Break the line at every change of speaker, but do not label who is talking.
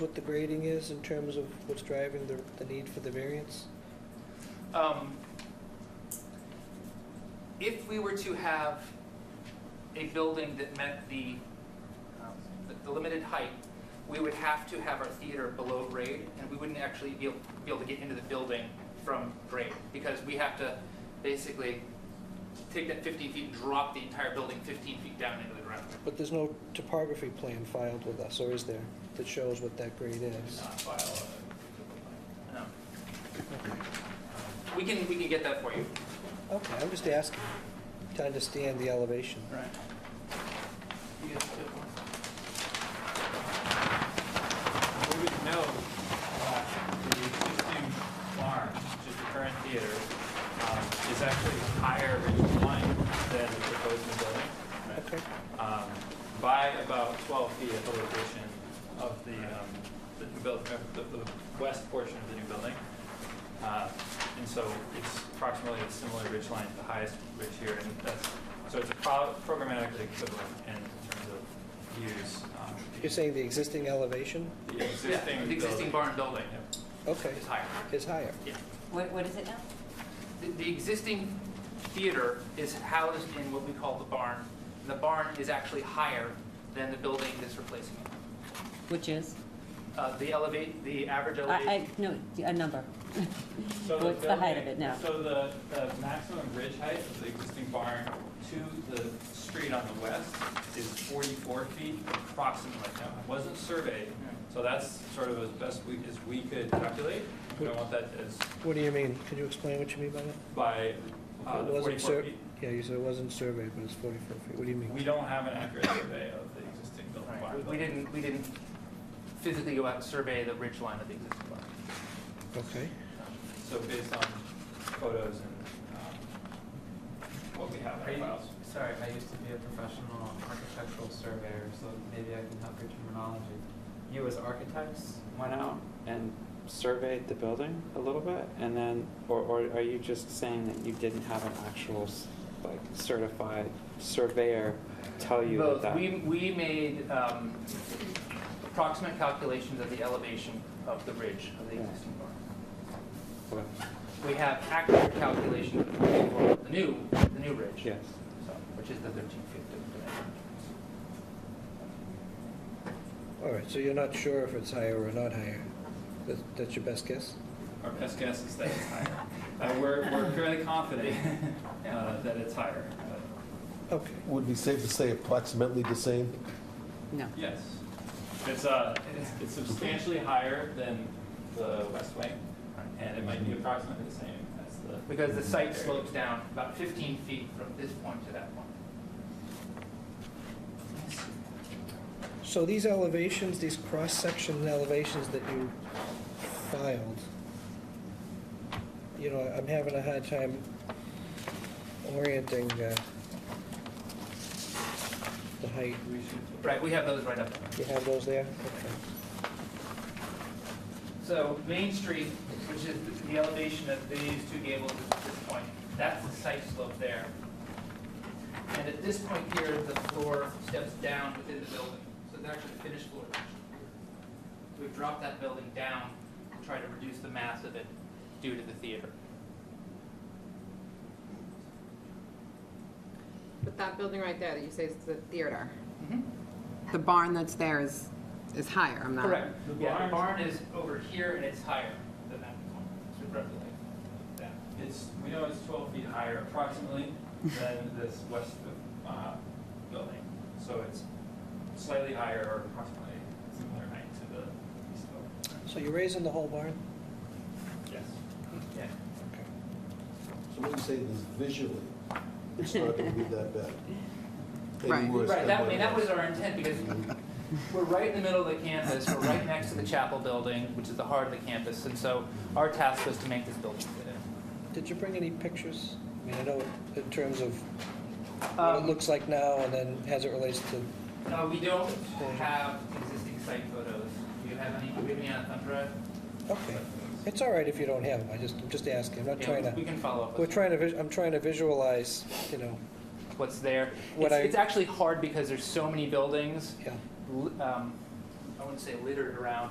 what the grading is in terms of what's driving the, the need for the variance?
Um, If we were to have a building that met the, um, the- the limited height, we would have to have our theater below grade, and we wouldn't actually be able, be able to get into the building from grade, because we have to basically take that 15 feet, and drop the entire building 15 feet down into the ground.
But there's no topography plan filed with us, or is there, that shows what that grade is?
Not file a- No. Um, We can, we can get that for you.
Okay, I'm just asking to understand the elevation.
Right. You guys good one?
We would know uh, the existing barn, which is the current theater, um, is actually higher ridge line than the proposed new building.
Okay,
um, By about 12 feet at the location of the, um, the new build, uh, the, the west portion of the new building. Uh, And so it's approximately a similar ridge line to the highest ridge here, and that's, so it's pro- programmatically equivalent in terms of views. um,
you're saying the existing elevation?
The existing
Yeah, The existing barn
building.
building
Okay,
is higher.
is higher.
What, what is it now?
The- The existing theater is housed in what we call the barn. The barn is actually higher than the building that's replacing it.
Which is?
Uh, The elevate, the average
I,
elevation,
I, no, a number.
So
What's the height of
building-
it now?
So the, the maximum ridge height of the existing barn to the street on the west is 44 feet approximately. Now, it wasn't surveyed, so that's sort of as best we, as we could calculate. We don't want that as
What do you mean? Could you explain what you mean by that?
by uh,
It
the
wasn't
44
sur-
feet.
Yeah, you said it wasn't surveyed, but it's 44 feet. What do you
We
mean?
don't have an accurate survey of the existing building
Right.
barn.
We- we didn't, we didn't physically go out and survey the ridge line of the existing barn.
Okay,
So based on photos and um, what we have
Are
in
you-
our files.
Sorry, I used to be a professional architectural surveyor, so maybe I can help your terminology. You as architects went out and surveyed the building a little bit, and then, or, or are you just saying that you didn't have an actual, s- like, certified surveyor tell you
Both.
that?
We, we made um, approximate calculations of the elevation of the ridge of the
Yeah.
existing barn.
Okay,
We have accurate calculation for the new, the new ridge.
Yes.
So, which is the 13 feet. that-
all right, so you're not sure if it's higher or not higher? That- That's your best guess?
Our best guess is that it's higher. Uh, We're, we're fairly confident uh, that it's higher. but
Okay.
Would be safe to say approximately the same?
No.
Yes. It's, uh, it's- it's substantially higher than the west wing, and it might be approximately the same as the,
Because the site slopes down about 15 feet from this point to that point.
So these elevations, these cross-section elevations that you filed, you know, I'm having a hard time orienting uh, the height.
Right, we have those right up there.
You have those there? Okay.
So Main Street, which is the elevation of these two gables at this point, that's the site slope there. And at this point here, the floor steps down within the building, so it's actually the finished floor. We've dropped that building down to try to reduce the mass of it due to the theater.
But that building right there that you say is the theater, Mm-hmm. the barn that's there is, is higher, I'm not.
Correct.
The
Yeah, the
barn-
barn is over here and it's higher than that point, so roughly like that.
it's, we know it's 12 feet higher approximately than this west uh, building. So it's slightly higher or approximately similar height to the east building.
So you're raising the whole barn?
Yes.
Yeah.
Okay.
So what you say is visually, it's not going to be that bad. Any
Right.
worse
Right,
than
that, I
what
mean,
it
that was our intent, because we're right in the middle of the campus, we're right next to the chapel building, which is the heart of the campus, and so our task was to make this building fit in.
Did you bring any pictures? I mean, I know in terms of what it
Um,
looks like now and then as it relates to,
No, we don't have existing site photos. Do you have any, do you have any uh, on thumb drive?
okay. It's all right if you don't have them, I just, I'm just asking, I'm not
Yeah,
trying
We
to,
can follow up
we're
with
trying to, vis- I'm trying to visualize, you know,
what's there.
What
It's,
I-
it's actually hard because there's so many buildings,
yeah.
li- um, I wouldn't say littered around,